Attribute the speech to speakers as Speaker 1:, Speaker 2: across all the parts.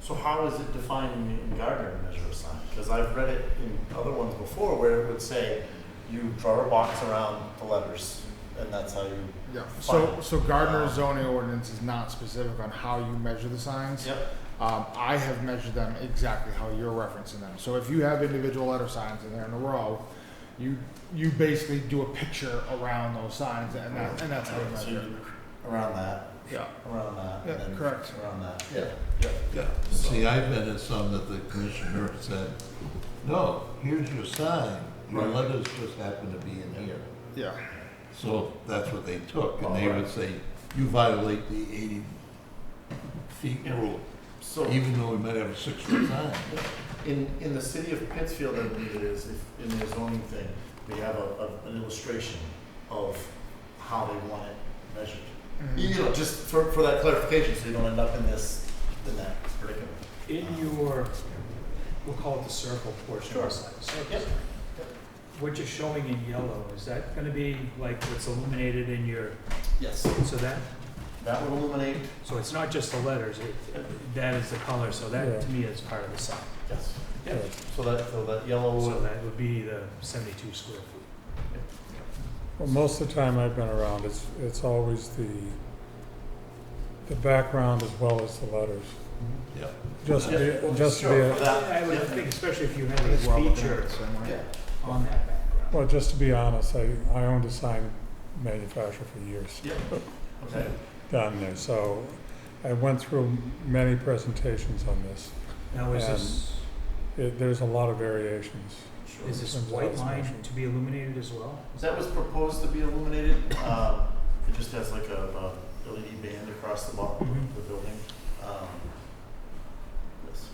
Speaker 1: So how is it defined in in Gardner to measure a sign? Because I've read it in other ones before where it would say, you draw a box around the letters, and that's how you.
Speaker 2: Yeah,
Speaker 1: Fine.
Speaker 2: so, so
Speaker 1: Uh,
Speaker 2: Gardner's zoning ordinance is not specific on how you measure the signs.
Speaker 1: Yep.
Speaker 2: Um, I have measured them exactly how you're referencing them. So if you have individual letter signs in there in a row, you, you basically do a picture around those signs and that, and that's how you
Speaker 1: So
Speaker 2: measure it.
Speaker 1: you, around that,
Speaker 2: Yeah.
Speaker 1: around that,
Speaker 2: Yeah,
Speaker 1: and then
Speaker 2: correct.
Speaker 1: around that.
Speaker 2: Yeah.
Speaker 1: Yeah.
Speaker 2: Yeah.
Speaker 3: See, I've been at some that the commissioner said, no, here's your sign, your
Speaker 2: Right.
Speaker 3: letters just happen to be in here.
Speaker 2: Yeah,
Speaker 3: So that's what they took, and they would say, you violate the eighty feet rule,
Speaker 1: So
Speaker 3: even though we might have a six foot sign.
Speaker 1: in, in the city of Pittsfield, I believe it is, if- in their zoning thing, we have a, a- an illustration of how they want it measured.
Speaker 2: Mm-hmm.
Speaker 1: You you know, just for, for that clarification, so you don't end up in this, in that predicament.
Speaker 4: In your, we'll call it the circle portion of the sign. circle
Speaker 1: Yep.
Speaker 4: sign. What you're showing in yellow, is that gonna be like what's illuminated in your,
Speaker 1: Yes.
Speaker 4: so that,
Speaker 1: That would illuminate,
Speaker 4: so it's not just the letters, it, that is the color, so that to me is part of the sign.
Speaker 1: yes.
Speaker 4: Yeah.
Speaker 1: So that, so that yellow
Speaker 4: So
Speaker 1: would.
Speaker 4: that would be the seventy-two square feet.
Speaker 5: Well, most of the time I've been around, it's, it's always the, the background as well as the letters.
Speaker 3: Yeah.
Speaker 5: Just,
Speaker 1: Yeah,
Speaker 5: be-
Speaker 1: well,
Speaker 5: just to
Speaker 1: sure,
Speaker 5: be,
Speaker 1: for that,
Speaker 4: I would
Speaker 1: yeah.
Speaker 4: think especially if you had a
Speaker 2: That's well within
Speaker 4: feature
Speaker 2: it, so I'm like-
Speaker 1: Yeah.
Speaker 4: on that background.
Speaker 5: well, just to be honest, I, I owned a sign manufacturer for years
Speaker 1: Yep. Okay.
Speaker 5: down there, so I went through many presentations on this.
Speaker 4: Now,
Speaker 5: Um,
Speaker 4: is this,
Speaker 5: It, there's a lot of variations.
Speaker 1: Sure.
Speaker 4: is this
Speaker 5: Turns out
Speaker 4: white
Speaker 5: it's
Speaker 4: line
Speaker 5: motion.
Speaker 4: to be illuminated as well?
Speaker 1: That was proposed to be illuminated. Um, it just has like a, a LED band across the bottom of
Speaker 4: Mhm.
Speaker 1: the building. Um, yes.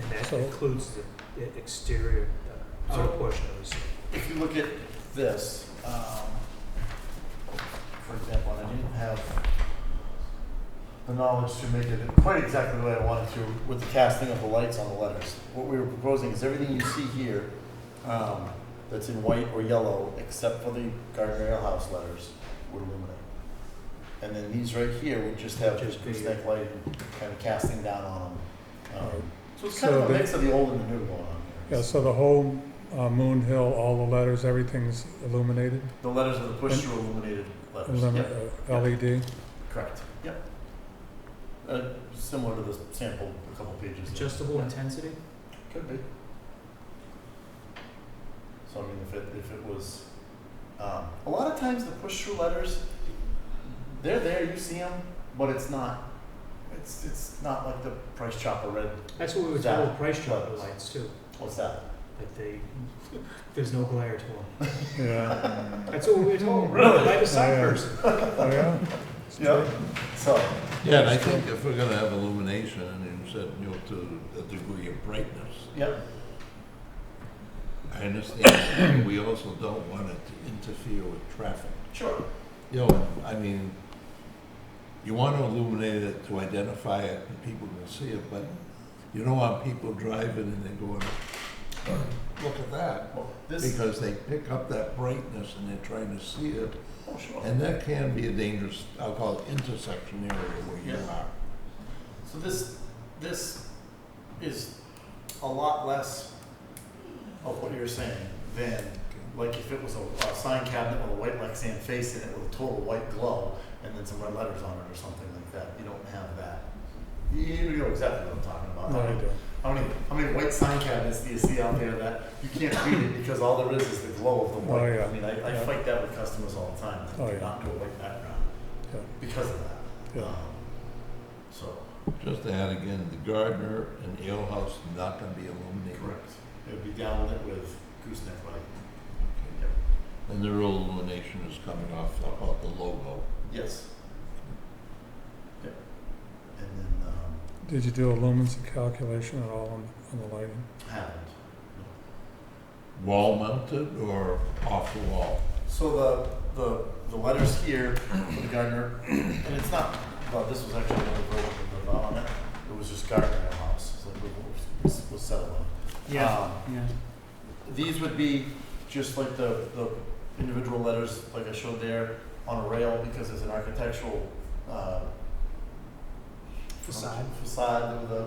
Speaker 4: And that
Speaker 5: So-
Speaker 4: includes the the exterior, the outer
Speaker 1: So-
Speaker 4: portion of the sign.
Speaker 1: If you look at this, um, for example, and I didn't have the knowledge to make it quite exactly the way I wanted to with the casting of the lights on the letters. What we were proposing is everything you see here um, that's in white or yellow, except for the Gardner Ale House letters, would illuminate. And then these right here would just have
Speaker 4: Just be-
Speaker 1: gooseneck light and kind of casting down on them. Um, so it's
Speaker 5: So
Speaker 1: kind of a
Speaker 5: the-
Speaker 1: mix of the old and the new going on here.
Speaker 5: Yeah, so the whole, uh, Moon Hill, all the letters, everything's illuminated,
Speaker 1: The letters are the push-through illuminated letters.
Speaker 5: illumi-
Speaker 1: Yep.
Speaker 5: uh, LED.
Speaker 1: Correct. Yep. Uh, similar to the sample, a couple pages. in.
Speaker 4: Adjustable intensity?
Speaker 1: Could be. So I mean, if it, if it was, um, a lot of times the push-through letters, they're there, you see them, but it's not, it's, it's not like the price chopper red,
Speaker 4: That's what we were
Speaker 1: That-
Speaker 4: told, with price chopper lights too,
Speaker 1: what's that?
Speaker 4: that they, there's no glare to them.
Speaker 5: Yeah,
Speaker 2: Um,
Speaker 4: That's what we were told
Speaker 1: really?
Speaker 4: by the sign
Speaker 5: Yeah.
Speaker 4: person.
Speaker 5: oh, yeah?
Speaker 1: Yeah. So,
Speaker 3: Yeah, and I think if we're gonna have illumination, and you said, you know, to a degree of brightness,
Speaker 1: yep,
Speaker 3: I understand, we also don't want it to interfere with traffic.
Speaker 1: sure.
Speaker 3: You know, I mean, you want to illuminate it to identify it and people can see it, but you don't want people driving and they're going, "Oh, look at that.
Speaker 1: Well, this,
Speaker 3: Because they pick up that brightness and they're trying to see it.
Speaker 1: oh, sure.
Speaker 3: And that can be a dangerous, I'll call it intersection area where you
Speaker 1: Yeah.
Speaker 3: are.
Speaker 1: So this, this is a lot less of what you're saying than, like if it was a, a sign cabinet with a white Lexan face in it with a total white glow and then some red letters on it or something like that, you don't have that. You you know exactly what I'm talking about.
Speaker 5: No,
Speaker 1: How
Speaker 5: I
Speaker 1: many-
Speaker 5: don't.
Speaker 1: How many, how many white sign cabinets do you see out there that you can't read it because all there is is the glow of the
Speaker 5: Oh,
Speaker 1: white?
Speaker 5: yeah.
Speaker 1: I mean, I, I
Speaker 5: Yeah.
Speaker 1: fight that with customers all the time,
Speaker 5: Oh,
Speaker 1: I do
Speaker 5: yeah.
Speaker 1: not do a white background
Speaker 5: Yeah.
Speaker 1: because of that.
Speaker 5: Yeah.
Speaker 1: Um, So.
Speaker 3: Just to add again, the gardener and ale house not going to be illuminated.
Speaker 1: Correct. It would be down it with gooseneck light. Yep.
Speaker 3: And the real illumination is coming off, I'll call it the logo.
Speaker 1: Yes. Yep. And then, um,
Speaker 5: Did you do a lumens calculation at all on, on the lighting?
Speaker 1: happened.
Speaker 3: Wall mounted or off the wall?
Speaker 1: So the, the, the letters here for the gardener, and it's not, well, this was actually another version of the development. It was just gardener house, it's like, we- we- we'll settle on.
Speaker 4: Yeah,
Speaker 1: Um,
Speaker 4: yeah.
Speaker 1: These would be just like the, the individual letters, like I showed there, on a rail because it's an architectural, uh,
Speaker 4: Facade.
Speaker 1: Facade with a